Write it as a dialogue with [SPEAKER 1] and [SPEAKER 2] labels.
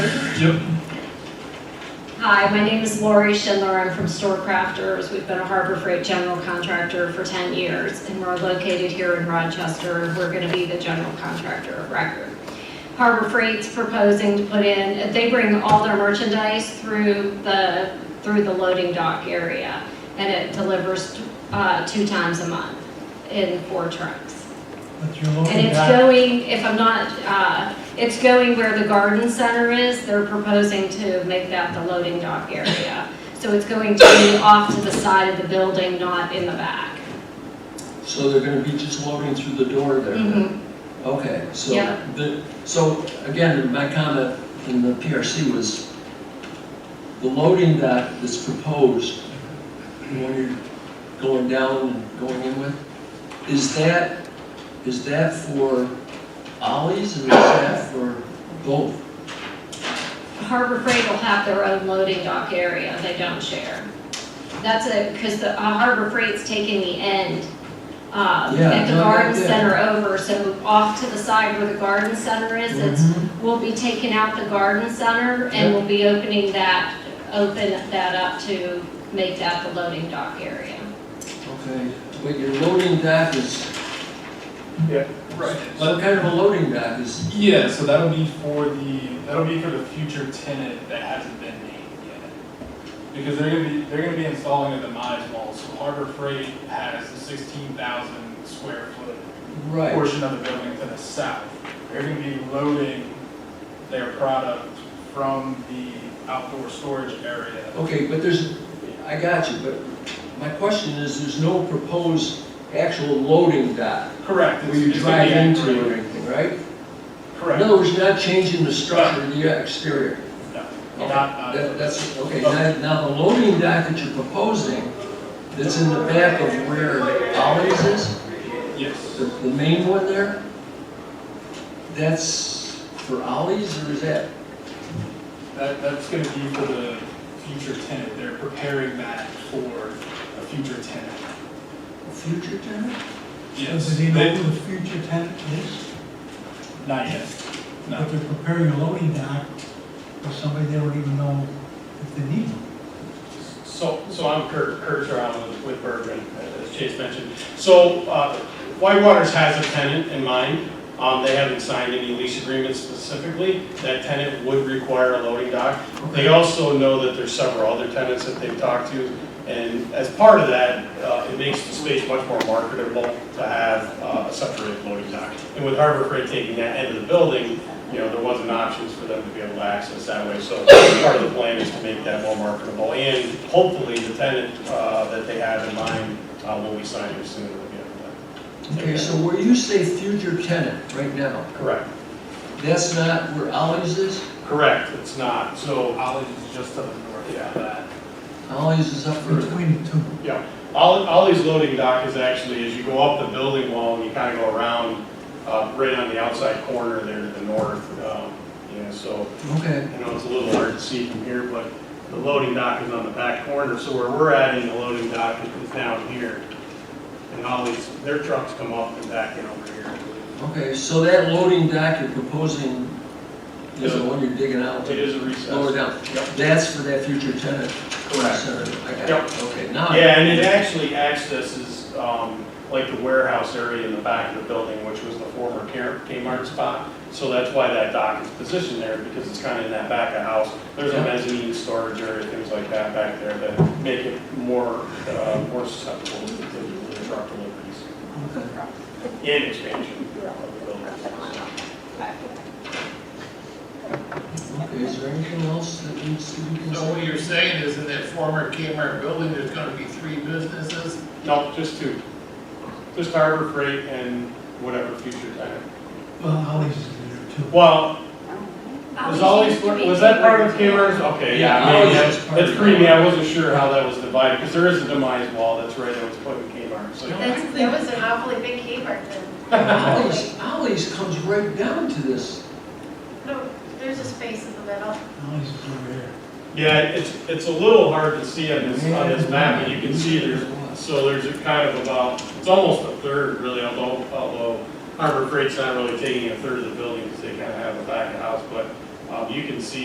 [SPEAKER 1] Yep.
[SPEAKER 2] Hi, my name is Lori Schindler. I'm from Store Crafters. We've been a Harbor Freight general contractor for 10 years, and we're located here in Rochester. We're going to be the general contractor of record. Harbor Freight's proposing to put in, they bring all their merchandise through the, through the loading dock area, and it delivers uh, two times a month in four trucks.
[SPEAKER 1] But you're
[SPEAKER 2] And
[SPEAKER 1] looking
[SPEAKER 2] it's
[SPEAKER 1] at,
[SPEAKER 2] going, if I'm not, uh, it's going where the garden center is, they're proposing to make that the loading dock area. So it's going to be off to the side of the building, not in the back.
[SPEAKER 3] So they're gonna be just loading through the door there? then?
[SPEAKER 2] Mhm.
[SPEAKER 3] Okay, so,
[SPEAKER 2] Yeah.
[SPEAKER 3] the- so again, my comment in the PRC was, the loading that is proposed, the one you're going down and going in with, is that, is that for ollies or is that for both?
[SPEAKER 2] Harbor Freight will have their own loading dock area, they don't share. That's a, because the uh, Harbor Freight's taking the end, uh,
[SPEAKER 3] Yeah,
[SPEAKER 2] at the
[SPEAKER 3] no, yeah,
[SPEAKER 2] garden
[SPEAKER 3] yeah.
[SPEAKER 2] center over, so off to the side where the garden center is, it's
[SPEAKER 3] Mm-hmm.
[SPEAKER 2] We'll be taking out the garden center and we'll be opening that, open that up to make that the loading dock area.
[SPEAKER 3] Okay, but your loading dock is.
[SPEAKER 1] Yeah.
[SPEAKER 3] Right. What kind of a loading dock is,
[SPEAKER 4] Yeah, so that'll be for the, that'll be for the future tenant that hasn't been named yet. Because they're gonna be, they're gonna be installing a demise wall, so Harbor Freight has a sixteen thousand square foot
[SPEAKER 3] right?
[SPEAKER 4] portion of the building to the south. They're gonna be loading their product from the outdoor storage area.
[SPEAKER 3] Okay, but there's, I got you, but my question is, there's no proposed actual loading dock
[SPEAKER 4] Correct.
[SPEAKER 3] where
[SPEAKER 4] it's-
[SPEAKER 3] you
[SPEAKER 4] it's
[SPEAKER 3] drive
[SPEAKER 4] gonna be
[SPEAKER 3] into or
[SPEAKER 4] anchored.
[SPEAKER 3] anything, right? In
[SPEAKER 4] Correct.
[SPEAKER 3] other words, you're not changing the structure of the exterior.
[SPEAKER 4] No, not-
[SPEAKER 3] That- That's, okay, now, now the loading dock that you're proposing, that's in the back of where Ollie's is,
[SPEAKER 4] Yes.
[SPEAKER 3] the, the main one there, that's for Ollie's or is that?
[SPEAKER 4] That, that's gonna be for the future tenant, they're preparing that for a future tenant.
[SPEAKER 3] a Future tenant?
[SPEAKER 1] does
[SPEAKER 4] They-
[SPEAKER 1] he know who the future tenant is?
[SPEAKER 4] Not yet,
[SPEAKER 1] But
[SPEAKER 4] no,
[SPEAKER 1] they're preparing a loading dock for somebody they don't even know if they need one.
[SPEAKER 5] So, so I'm Kurt, Kurt Brown with- with Bergman, as Chase mentioned. So, uh, Whitewaters has a tenant in mind. Um, they haven't signed any lease agreements specifically. That tenant would require a loading dock. They also know that there's several other tenants that they've talked to. And as part of that, uh, it makes the space much more marketable to have uh, a separate loading dock. And with Harbor Freight taking that end of the building, you know, there wasn't options for them to be able to access that way. So part of the plan is to make that more marketable, and hopefully the tenant uh, that they have in mind uh, will be signed as soon as we get that.
[SPEAKER 3] Okay, so where you say future tenant right now,
[SPEAKER 5] Correct,
[SPEAKER 3] that's not where Ollie's is?
[SPEAKER 5] correct, it's not, so,
[SPEAKER 4] Olive is just to the north of that.
[SPEAKER 3] Ollie's is Oh, up for
[SPEAKER 1] Between the two.
[SPEAKER 5] yeah. Ollie- Ollie's loading dock is actually, as you go up the building wall, and you kind of go around, uh, right on the outside corner there to the north, um, you know, so
[SPEAKER 3] Okay,
[SPEAKER 5] I know it's a little hard to see from here, but the loading dock is on the back corner, so where we're at in the loading dock is is down here. And all these, their trucks come up and back in over here.
[SPEAKER 3] okay, so that loading dock you're proposing is the
[SPEAKER 5] Yeah.
[SPEAKER 3] one you're digging out?
[SPEAKER 5] It is a
[SPEAKER 3] Lower
[SPEAKER 5] recess.
[SPEAKER 3] down,
[SPEAKER 5] Yep.
[SPEAKER 3] that's for that future tenant?
[SPEAKER 5] Correct.
[SPEAKER 3] Center. I got
[SPEAKER 5] Yep.
[SPEAKER 3] it, okay, now.
[SPEAKER 5] Yeah, and it actually accesses, um, like the warehouse area in the back of the building, which was the former Kmart Kmart spot. So that's why that dock is positioned there, because it's kind of in that back of house. There's a
[SPEAKER 3] Yeah.
[SPEAKER 5] mezzanine storage area, things like that back there that make it more, uh, more susceptible to the truck deliveries.
[SPEAKER 3] Okay.
[SPEAKER 5] And expansion.
[SPEAKER 3] Okay, is there anything else that needs to be
[SPEAKER 6] So what
[SPEAKER 3] considered?
[SPEAKER 6] you're saying is in that former Kmart building, there's gonna be three businesses?
[SPEAKER 5] No, just two. Just Harbor Freight and whatever future tenant.
[SPEAKER 1] Well, Ollie's is there too.
[SPEAKER 5] Well, was always, was that part of Kmart's? Okay, yeah,
[SPEAKER 3] Yeah,
[SPEAKER 5] maybe
[SPEAKER 3] Ollie's
[SPEAKER 5] that's,
[SPEAKER 3] is part
[SPEAKER 5] that's
[SPEAKER 3] of
[SPEAKER 5] creamy.
[SPEAKER 3] Kmart.
[SPEAKER 5] I wasn't sure how that was divided, because there is a demise wall that's right that was put in Kmart, so.
[SPEAKER 7] That's, that was an awfully big Kmart then.
[SPEAKER 3] Ollie's, Ollie's comes right down to this.
[SPEAKER 7] No, there's a space in the middle.
[SPEAKER 1] Ollie's is over here.
[SPEAKER 5] Yeah, it's, it's a little hard to see on this, on this map, but you can see there's, so there's a kind of about, it's almost a third really, although, although Harbor Freight's not really taking a third of the building, because they kind of have a back of house, but, um, you can see